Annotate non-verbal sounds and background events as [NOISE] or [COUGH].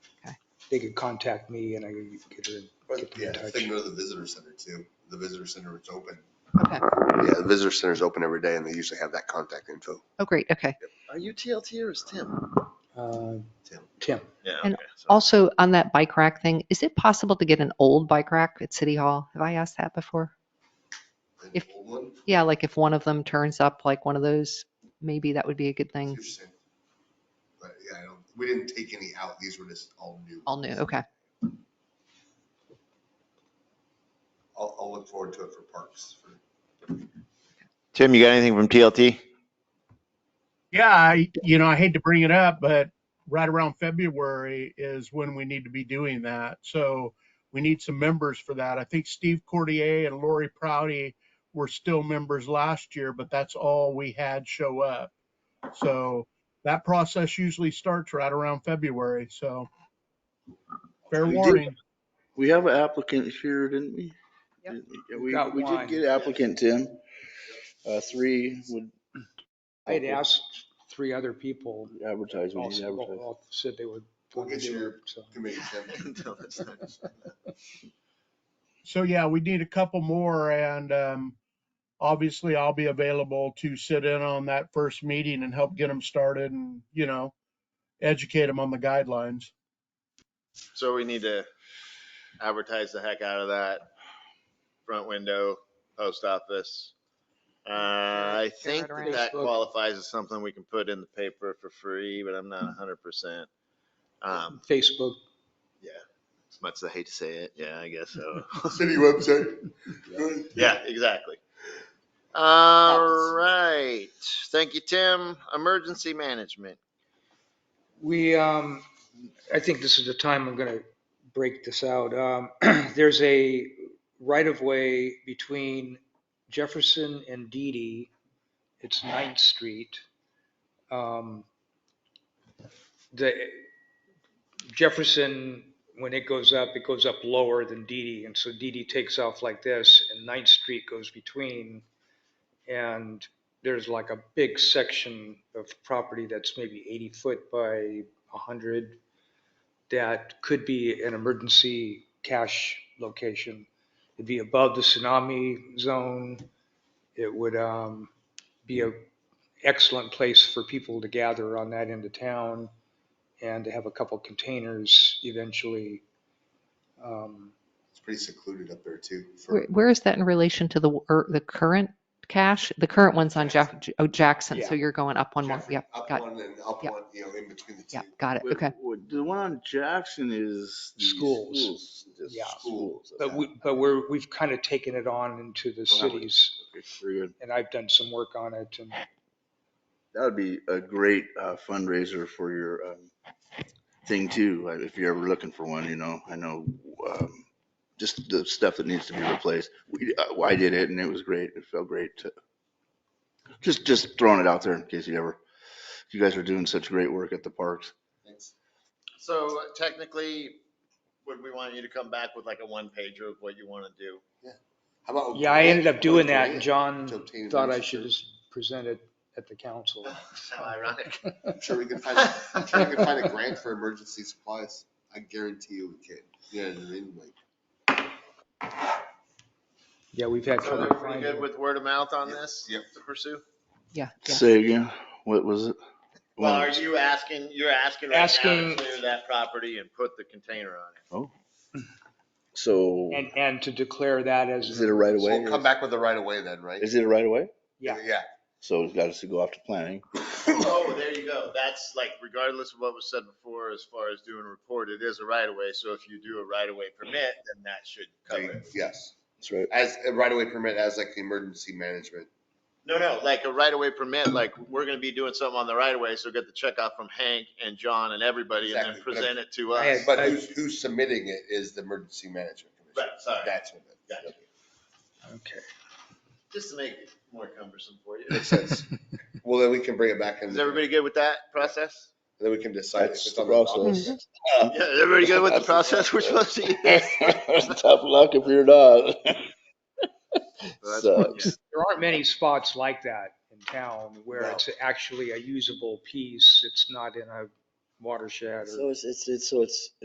they could contact me and I could get her. But Get them yeah, in I touch. think go to the visitor center too. The visitor center is open. Okay. Yeah, the visitor center is open every day and they usually have that contact info. Oh, great. Okay. Are you TLT or is Tim? Uh, Tim. Tim, Yeah. And okay, so- Also, on that bike rack thing, is it possible to get an old bike rack at City Hall? Have I asked that before? And If- old one, Yeah, like if one of them turns up, like one of those, maybe that would be a good thing. Interesting. But yeah, I don't, we didn't take any out. These were just all new. All new. Okay. I'll, I'll look forward to it for parks. for- Tim, you got anything from TLT? Yeah, I, you know, I hate to bring it up, but right around February is when we need to be doing that. So we need some members for that. I think Steve Cordier and Lori Prouty were still members last year, but that's all we had show up. So that process usually starts right around February. So fair We did- warning. We have an applicant here, didn't we? Yep. Didn't we- We, Got we one. did get applicant in. Uh, three would. I had asked three other people, Advertise, we all need to advertise. all said they would. We'll get your So committee. [LAUGHS] Tim. So yeah, we need a couple more and um, obviously I'll be available to sit in on that first meeting and help get them started and, you know, educate them on the guidelines. So we need to advertise the heck out of that front window, post office. Uh, I think Share it around. that that Facebook. qualifies as something we can put in the paper for free, but I'm not hundred percent. Um, Facebook, as much as I hate to say it, yeah, I guess so. [LAUGHS] City website. Yeah, exactly. All right. Thank you, Tim. Emergency management. we, um, I think this is the time I'm gonna break this out. Um, [CLEARS THROAT] there's a right of way between Jefferson and Deedy. It's Ninth Street. Um, The Jefferson, when it goes up, it goes up lower than Deedy, and so Deedy takes off like this, and Ninth Street goes between. And there's like a big section of property that's maybe 80 foot by 100 that could be an emergency cache location. It'd be above the tsunami zone. It would um, be a excellent place for people to gather on that end of town and to have a couple containers eventually. Um, It's pretty secluded up there too. for- Where, where is that in relation to the, or the current cache? The current one's on Jeff, oh, Jackson. So Yeah. you're going up one more. Jeffrey, Yep. Up Got, one and up Yep. one, you know, in between the two. yeah, got it. Wait, Okay. wait, The one on Jackson is. the Schools. just Yeah. Schools. But we, but we're, we've kind of taken it on into the cities Okay, Very good. and I've done some work on it and That would be a great uh, fundraiser for your um, thing too, like, if you're ever looking for one, you know, I know um, just the stuff that needs to be replaced. We, uh, well, I did it and it was great. It felt great to, just, just throwing it out there in case you ever, you guys are doing such great work at the parks. Thanks. So technically, would we want you to come back with like a one pager of what you want to [LAUGHS] do? How about? Yeah, I ended up doing that, and Okay. John To obtain thought I emergency should just present it at the council. How ironic. I'm [LAUGHS] sure we can find, I'm sure we can find a grant for emergency supplies. I guarantee you we can. Yeah, I mean, like, Yeah, we've had [LAUGHS] [LAUGHS] So trouble they're pretty finding good it. with word of mouth on Yep, this yep. to pursue? Yeah. yeah. Say again, what was it? Well, are you asking, you're asking right now to Asking- clear that property and put the container on it? So And, and to declare that is as, it a right of so way? we'll come back with the right of way then, right? Is it a right of way? yeah, Yeah. So it's got us to go off to planning. Oh, there you go. That's like regardless of what was said before, as far as doing a report, it is a right of way. So if you do a right of way permit, then that should cover it. Yes, That's right. as a right of way permit as like the emergency management. No, no, like a right of way permit, like we're gonna be doing something on the right of way. So get the check off from Hank and John and everybody and then Exactly, but- present it to I us. had- But who's, who's submitting it is the emergency management Right, commission. sorry. That's what it. Gotcha. okay. Just to make it more cumbersome for you. Makes sense. Well, then we can bring it back and Is everybody good with that process? Then we can decide. if That's it's the on docket. process. Yeah, is everybody good [LAUGHS] with the process we're supposed to use? Tough luck if you're not. Well, that's- Sucks. There aren't many spots like that in town where No. it's actually a usable piece. It's not in a watershed or. So it's, it's, it's, so it's,